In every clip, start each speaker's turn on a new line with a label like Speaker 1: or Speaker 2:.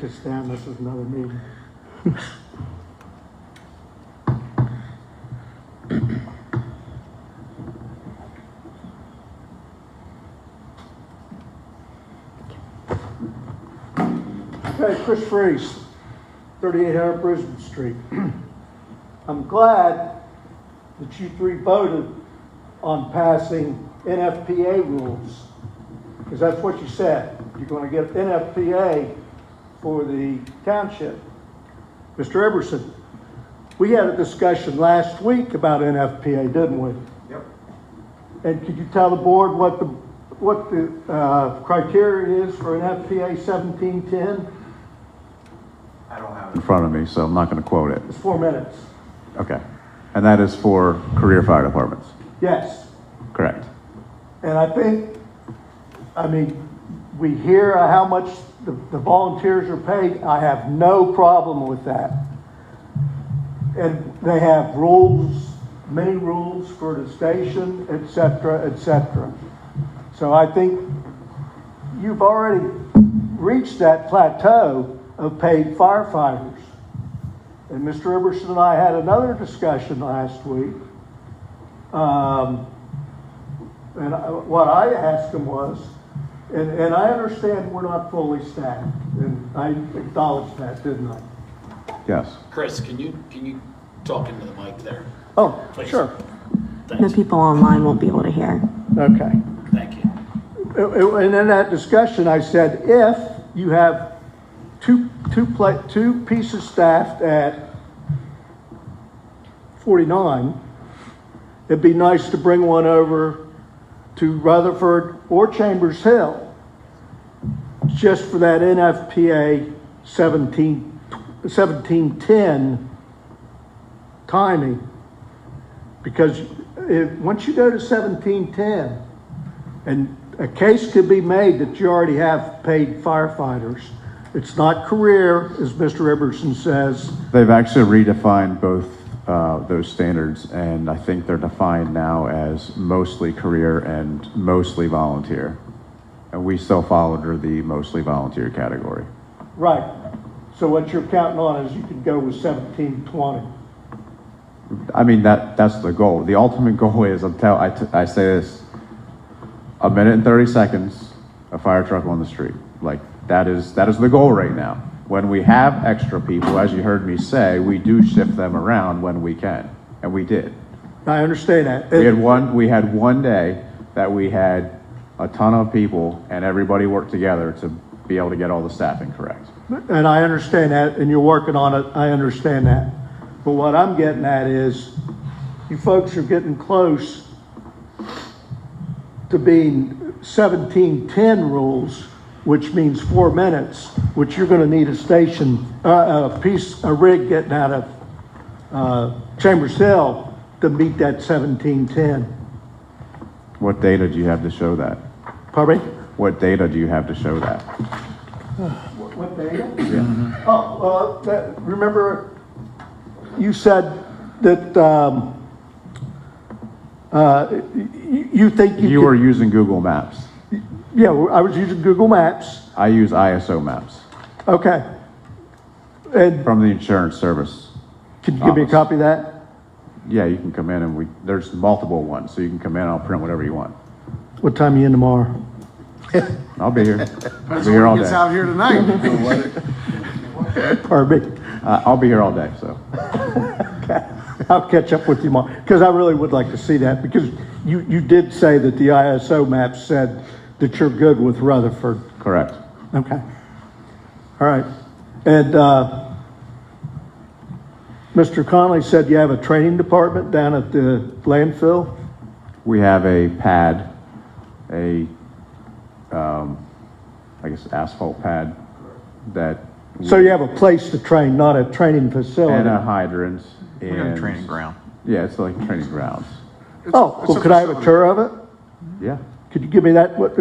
Speaker 1: to stand, this is another meeting. Okay, Chris Freeze, 3800 Brisbane Street. I'm glad that you three voted on passing NFPA rules, because that's what you said. You're going to get NFPA for the township. Mr. Eberson, we had a discussion last week about NFPA, didn't we?
Speaker 2: Yep.
Speaker 1: And could you tell the board what the, what the uh, criteria is for an FPA 1710?
Speaker 2: I don't have
Speaker 3: in
Speaker 2: it.
Speaker 3: front of me, so I'm not going to quote it.
Speaker 1: It's four minutes.
Speaker 3: Okay. And that is for career fire departments,
Speaker 1: Yes.
Speaker 3: correct?
Speaker 1: And I think, I mean, we hear how much the the volunteers are paid. I have no problem with that. And they have rules, many rules for the station, et cetera, et cetera. So I think you've already reached that plateau of paid firefighters. And Mr. Iverson and I had another discussion last week. Um, and I- what I asked him was, and, and I understand we're not fully staffed, and I acknowledged that, didn't I?
Speaker 3: Yes.
Speaker 4: Chris, can you, can you talk into the mic there?
Speaker 1: Oh,
Speaker 4: Please.
Speaker 1: sure,
Speaker 5: The
Speaker 4: Thanks,
Speaker 5: people online won't be able to hear.
Speaker 1: okay.
Speaker 4: thank you.
Speaker 1: And in that discussion, I said, if you have two, two pla, two pieces staffed at forty-nine, it'd be nice to bring one over to Rutherford or Chambers Hill just for that NFPA 17, 1710 timing. Because if, once you go to 1710, and a case could be made that you already have paid firefighters. It's not career, as Mr. Iverson says.
Speaker 3: They've actually redefined both uh, those standards, and I think they're defined now as mostly career and mostly volunteer. And we still fall under the mostly volunteer category.
Speaker 1: Right. So what you're counting on is you could go with 1720.
Speaker 3: I mean, that, that's the goal. The ultimate goal is, I'm tell, I, t- I say this, a minute and 30 seconds, a fire truck on the street. Like, that is, that is the goal right now. When we have extra people, as you heard me say, we do shift them around when we can, and we did.
Speaker 1: I understand that.
Speaker 3: We had one, we had one day that we had a ton of people and everybody worked together to be able to get all the staffing correct.
Speaker 1: And I understand that, and you're working on it, I understand that. But what I'm getting at is, you folks are getting close to being seventeen ten rules, which means four minutes, which you're gonna need a station, uh, a piece, a rig getting out of, uh, Chambers Hill to meet that seventeen ten.
Speaker 3: What data do you have to show that?
Speaker 1: Pardon me?
Speaker 3: What data do you have to show that?
Speaker 1: What data? Oh, well, that, remember, you said that, um, uh, y- y- you think you
Speaker 3: You were
Speaker 1: could.
Speaker 3: using Google Maps.
Speaker 1: Yeah, well, I was using Google Maps,
Speaker 3: I use ISO maps
Speaker 1: okay. And
Speaker 3: from the insurance service.
Speaker 1: could you give me a
Speaker 3: Thomas.
Speaker 1: copy of that?
Speaker 3: Yeah, you can come in and we, there's multiple ones, so you can come in, I'll print whatever you want.
Speaker 1: What time you in tomorrow?
Speaker 3: I'll be here. I'll be here all day. Uh,
Speaker 2: here tonight.
Speaker 1: Pardon me,
Speaker 3: Uh, I'll be here all day, so.
Speaker 1: I'll catch up with you tomorrow, because I really would like to see that, because you, you did say that the ISO map said that you're good with Rutherford.
Speaker 3: Correct.
Speaker 1: Okay. All right. And uh, Mr. Connolly said you have a training department down at the landfill?
Speaker 3: We have a pad, a, um, I guess asphalt pad that,
Speaker 1: So uh, you have a place to train, not a training
Speaker 3: and uh, a
Speaker 1: facility?
Speaker 3: hydrant and.
Speaker 6: training ground.
Speaker 3: Yeah, it's like training grounds.
Speaker 1: Oh, well, could I have a tour of it?
Speaker 3: Yeah.
Speaker 1: Could you give me that, What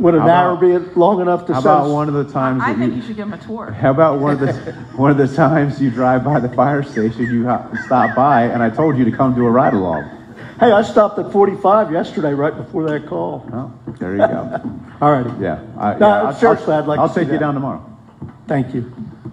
Speaker 1: would an
Speaker 3: How
Speaker 1: hour
Speaker 3: about-
Speaker 1: be long enough to
Speaker 3: How
Speaker 1: satisfy?
Speaker 3: about one of the times
Speaker 7: I
Speaker 3: that
Speaker 7: think you
Speaker 3: you,
Speaker 7: should give him a tour.
Speaker 3: how about one of the, one of the times you drive by the fire station, you hop- stop by and I told you to come do a ride along?
Speaker 1: Hey, I stopped at 45 yesterday, right before that call.
Speaker 3: Oh, there you go.
Speaker 1: All righty.
Speaker 3: Yeah. I-
Speaker 1: No,
Speaker 3: yeah, I'll-
Speaker 1: seriously, I'd like to
Speaker 3: I'll
Speaker 1: see
Speaker 3: take you
Speaker 1: that.
Speaker 3: down tomorrow.
Speaker 1: Thank you.